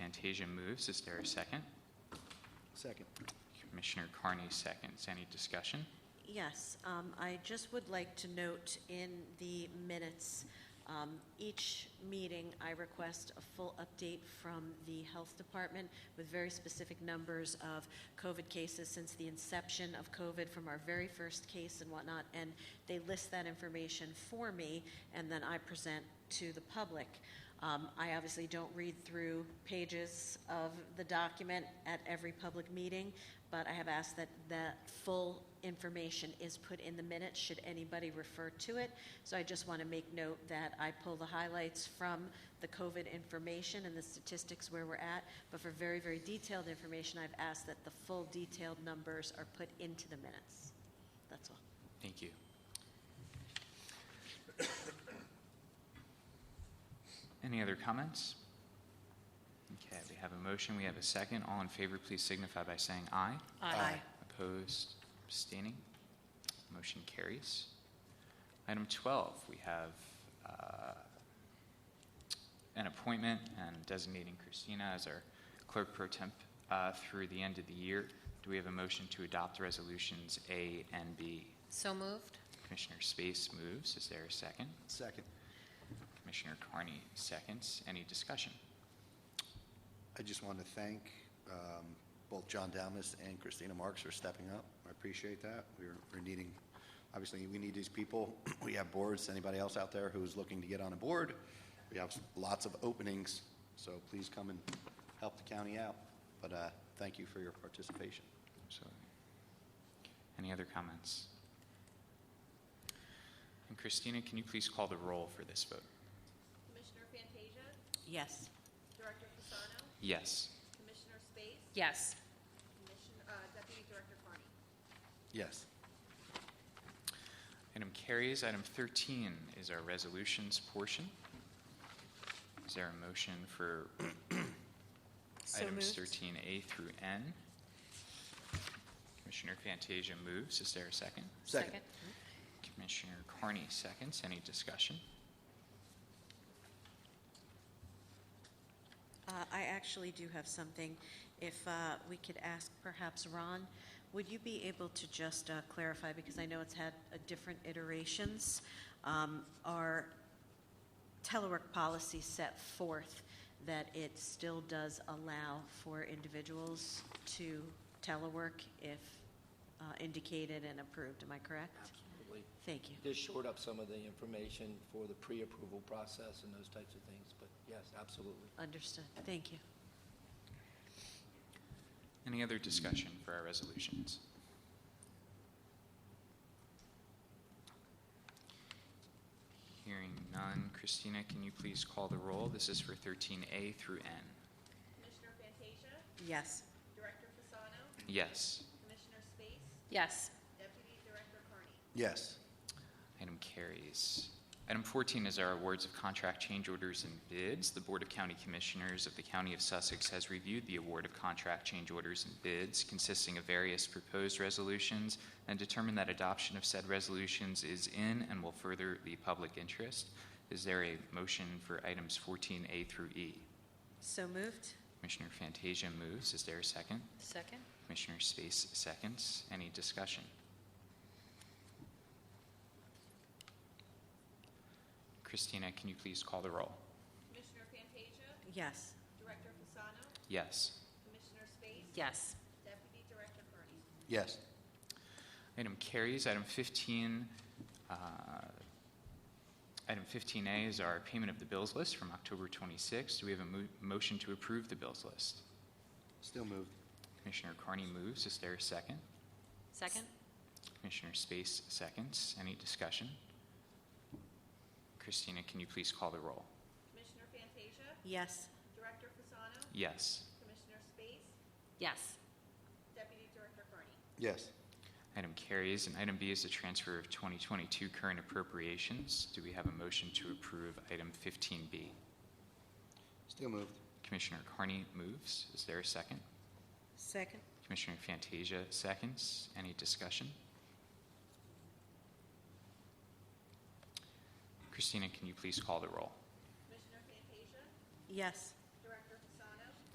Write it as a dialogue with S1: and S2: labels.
S1: Fantasia moves. Is there a second?
S2: Second.
S1: Commissioner Carney seconds. Any discussion?
S3: Yes, um, I just would like to note in the minutes, um, each meeting, I request a full update from the Health Department with very specific numbers of COVID cases since the inception of COVID from our very first case and whatnot, and they list that information for me, and then I present to the public. Um, I obviously don't read through pages of the document at every public meeting, but I have asked that that full information is put in the minutes, should anybody refer to it. So I just want to make note that I pull the highlights from the COVID information and the statistics where we're at, but for very, very detailed information, I've asked that the full detailed numbers are put into the minutes. That's all.
S1: Thank you. Any other comments? Okay, we have a motion, we have a second. All in favor, please signify by saying aye.
S2: Aye.
S1: Opposed, abstaining, motion carries. Item 12, we have uh, an appointment and designating Christina as our clerk pro temp uh, through the end of the year. Do we have a motion to adopt resolutions A and B?
S4: So moved.
S1: Commissioner Space moves. Is there a second?
S2: Second.
S1: Commissioner Carney seconds. Any discussion?
S2: I just want to thank um, both John Damas and Christina Marks for stepping up. I appreciate that. We're we're needing, obviously, we need these people. We have boards, anybody else out there who's looking to get on a board. We have lots of openings, so please come and help the county out. But uh, thank you for your participation.
S1: Absolutely. Any other comments? And Christina, can you please call the roll for this vote?
S5: Commissioner Fantasia,
S3: Yes.
S5: Director Fasano,
S1: Yes.
S5: Commissioner Space,
S4: Yes.
S5: Commissioner, uh, Deputy Director Carney.
S2: Yes.
S1: Item carries. Item 13 is our resolutions portion. Is there a motion for items 13A through N? Commissioner Fantasia moves. Is there a second?
S2: Second.
S1: Commissioner Carney seconds. Any discussion?
S3: Uh, I actually do have something. If uh, we could ask perhaps Ron, would you be able to just uh, clarify, because I know it's had uh, different iterations, um, our telework policy set forth that it still does allow for individuals to telework if uh, indicated and approved, am I correct?
S6: Absolutely.
S3: Thank you.
S6: Just short up some of the information for the pre-approval process and those types of things, but yes, absolutely.
S3: Understood, thank you.
S1: Any other discussion for our resolutions? Hearing none. Christina, can you please call the roll? This is for 13A through N.
S5: Commissioner Fantasia,
S3: Yes.
S5: Director Fasano,
S1: Yes.
S5: Commissioner Space,
S4: Yes.
S5: Deputy Director Carney.
S2: Yes.
S1: Item carries. Item 14 is our awards of contract change orders and bids. The Board of County Commissioners of the County of Sussex has reviewed the award of contract change orders and bids consisting of various proposed resolutions and determined that adoption of said resolutions is in and will further the public interest. Is there a motion for items 14A through E?
S3: So moved?
S1: Commissioner Fantasia moves. Is there a second?
S4: Second?
S1: Commissioner Space seconds. Any discussion? Christina, can you please call the roll?
S5: Commissioner Fantasia,
S3: Yes.
S5: Director Fasano,
S1: Yes.
S5: Commissioner Space,
S4: Yes.
S5: Deputy Director Carney.
S2: Yes.
S1: Item carries. Item 15, uh, item 15A is our payment of the bills list from October 26th. Do we have a mo- motion to approve the bills list?
S2: Still moved.
S1: Commissioner Carney moves. Is there a second?
S4: Second?
S1: Commissioner Space seconds. Any discussion? Christina, can you please call the roll?
S5: Commissioner Fantasia,
S3: Yes.
S5: Director Fasano,
S1: Yes.
S5: Commissioner Space,
S4: Yes.
S5: Deputy Director Carney.
S2: Yes.
S1: Item carries. And item B is the transfer of 2022 current appropriations. Do we have a motion to approve item 15B?
S2: Still moved.
S1: Commissioner Carney moves. Is there a second?
S3: Second?
S1: Commissioner Fantasia seconds. Any discussion? Christina, can you please call the roll?
S5: Commissioner Fantasia,
S3: Yes.